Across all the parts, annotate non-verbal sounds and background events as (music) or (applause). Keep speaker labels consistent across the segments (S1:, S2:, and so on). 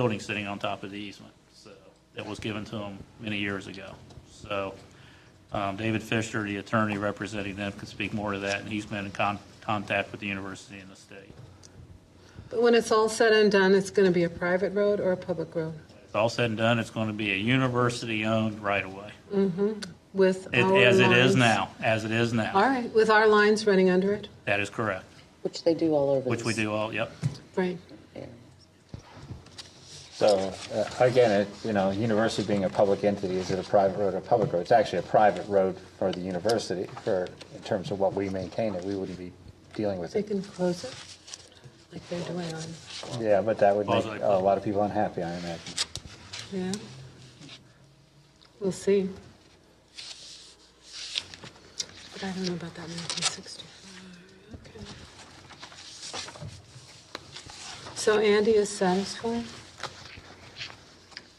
S1: building sitting on top of the easement, so, that was given to them many years ago. So, um, David Fisher, the attorney representing them, can speak more to that, and he's been in con- contact with the university and the state.
S2: But when it's all said and done, it's going to be a private road or a public road
S1: It's all said and done, it's going to be a university-owned right-of-way,
S2: with
S1: It-
S2: our
S1: as it is
S2: lines-
S1: now, as it is
S2: All
S1: now.
S2: right, with our lines running under it,
S1: That is correct,
S3: Which they do all over.
S1: which we
S3: this
S1: do all, yep.
S2: right?
S3: area.
S4: So uh, again, it- you know, university being a public entity, is it a private road or a public road? It's actually a private road for the university for, in terms of what we maintain it, we wouldn't be dealing with
S2: They
S4: it.
S2: can close it like they're doing on,
S4: Yeah, but that would make
S1: Quasi-public.
S4: a lot of people unhappy, I imagine.
S2: yeah. We'll see. But I don't know about that 1965. Okay. So Andy is satisfied?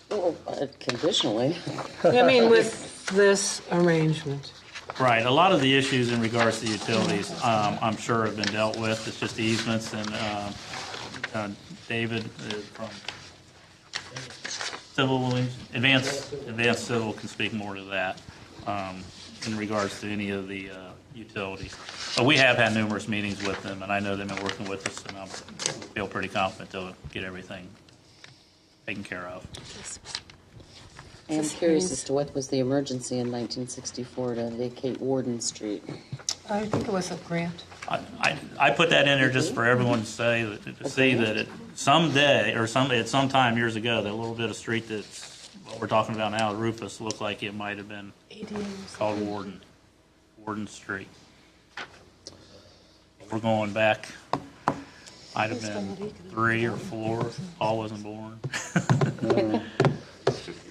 S3: Well, uh, (laughs) conditionally.
S2: I mean, with this arrangement.
S1: Right, a lot of the issues in regards to utilities, um, I'm sure have been dealt with, it's just easements and, um, uh, David uh, from Civil, Advanced, Advanced Civil can speak more to that, um, in regards to any of the, uh, utilities. But we have had numerous meetings with them, and I know they've been working with us, and I feel pretty confident they'll get everything taken care of.
S3: I am
S2: This
S3: curious
S2: is-
S3: as to what was the emergency in 1964 to vacate Warden Street.
S2: I think it was a grant.
S1: I- I, I put that in there just for everyone to say, that- to see that it someday, or some, at some time years ago, that little bit of street that's, what we're talking about now, Rufus, looked like it might have been called Warden, Warden Street. We're going back, might have been three or four, Paul wasn't born.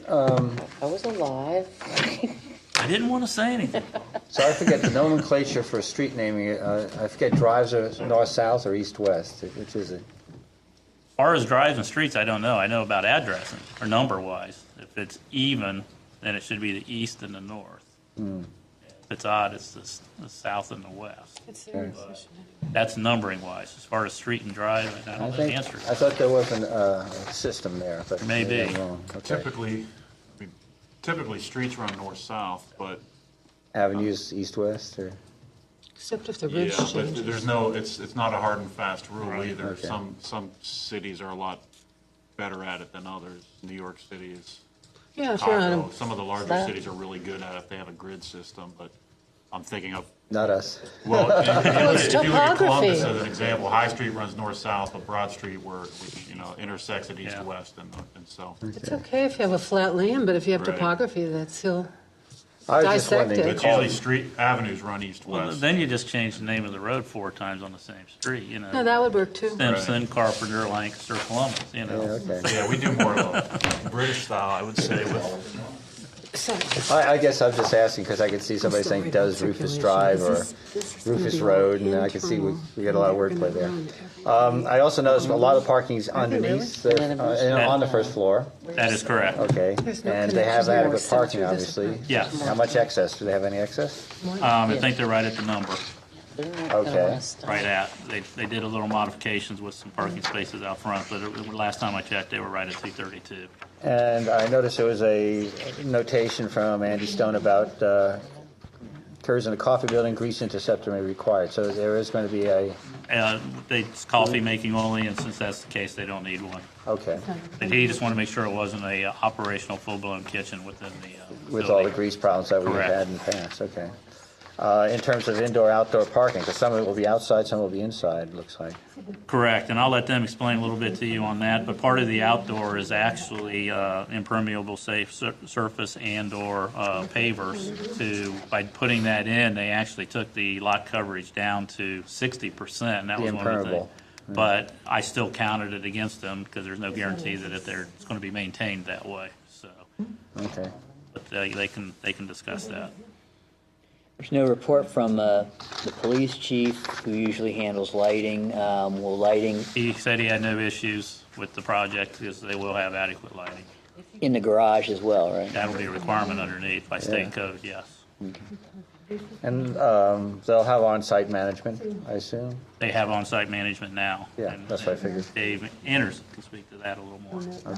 S3: I was alive. (laughs)
S1: I didn't want to say anything.
S4: So I forget the nomenclature for street naming, uh, I forget drives are north-south or east-west, which is it?
S1: As far as drives and streets, I don't know. I know about addressing or number wise. If it's even, then it should be the east and the north.
S4: Hmm.
S1: If it's odd, it's the, s- the south and the west.
S2: It's their decision.
S1: That's numbering wise. As far as street and drive, I
S4: I
S1: don't know the
S4: think,
S1: answer.
S4: I thought there was an, uh, a system there, but
S1: Maybe.
S4: maybe I'm wrong. Okay.
S5: Typically, I mean, typically, streets run north-south, but,
S4: Avenues, east-west, or?
S2: Except if the
S5: yeah,
S2: ridge
S5: but
S2: changes.
S5: there's no, it's, it's not a hard and fast rule either.
S4: okay.
S5: Some, some cities are a lot better at it than others. New York City is,
S2: Yeah, if you're on
S5: Chicago,
S2: a,
S5: some of the larger
S3: That-
S5: cities are really good at it. They have a grid system, but I'm thinking of,
S4: Not us.
S5: well, if you look at- if you look at Columbus
S2: topography.
S5: as an example, High Street runs north-south, but Broad Street where, which, you know, intersects at
S1: Yeah.
S5: east-west and, and south.
S2: it's okay if you have a flat land, but if you have
S5: Right.
S2: topography, that's hill.
S4: I was just
S2: Dissect
S4: wondering,
S2: it.
S4: they
S5: But
S4: call
S5: usually,
S4: it-
S5: street avenues run
S1: Well,
S5: east-west.
S1: then you just change the name of the road four times on the same street, you know.
S2: No, that would work too.
S1: Stimson, Carpenter, Lancaster, Columbus, you
S4: Yeah,
S1: know.
S4: okay.
S5: Yeah, we do more of a British style, I would say, with
S2: So,
S4: I, I guess I'm just asking because I could see somebody
S2: Still
S4: saying,
S2: reading
S4: does Rufus
S2: circulation.
S4: Drive
S2: This
S4: or
S2: is- this is gonna
S4: Rufus
S2: be all
S4: Road? And I could see we,
S2: internal.
S4: we got a lot of
S2: They're gonna
S4: wordplay there.
S2: run
S4: Um, I also noticed a lot of parking's underneath, the-
S3: And then
S4: uh, and on the first floor,
S1: That is correct. Um,
S4: okay?
S2: There's no
S4: And they have
S2: connections anymore,
S4: adequate
S2: so
S4: parking,
S2: through this
S4: obviously.
S2: apartment.
S1: Yes.
S4: How much excess? Do they have any excess?
S1: Um, I think they're right at the number,
S3: They're not gonna
S4: Okay.
S3: wanna stop.
S1: right at. They, they did a little modifications with some parking spaces out front, but it- last time I checked, they were right at two thirty-two.
S4: And I noticed there was a notation from Andy Stone about uh, curves in a coffee building, grease interceptor may be required. So there is going to be a,
S1: Uh, they, it's coffee making only, and since that's the case, they don't need one.
S4: okay,
S1: But he just wanted to make sure it wasn't a uh, operational full-blown kitchen within the. uh,
S4: with all
S1: facility.
S4: the grease problems that we've
S1: Correct.
S4: had in the past, okay. Uh, In terms of indoor-outdoor parking, because some of it will be outside, some will be inside, it looks like.
S1: Correct, and I'll let them explain a little bit to you on that, but part of the outdoor is actually uh, impermeable safe sur- surface and/or uh, pavers to, by putting that in, they actually took the lot coverage down to 60%, and that
S4: The
S1: was one of the things.
S4: impermeable. Mm.
S1: But I still counted it against them, because there's no guarantee that if they're, it's going to be maintained that way, so,
S4: Okay.
S1: but they they can, they can discuss that.
S6: There's no report from uh, the police chief, who usually handles lighting. Um, Will lighting
S1: He said he had no issues with the project, because they will have adequate lighting.
S6: in the garage as well, right?
S1: That'll be a requirement underneath by state code, yes.
S4: And um, they'll have on-site management, I assume?
S1: they have on-site management now.
S4: Yeah,
S1: And-
S4: that's what I figured.
S1: Dave Anderson can speak to that a little more.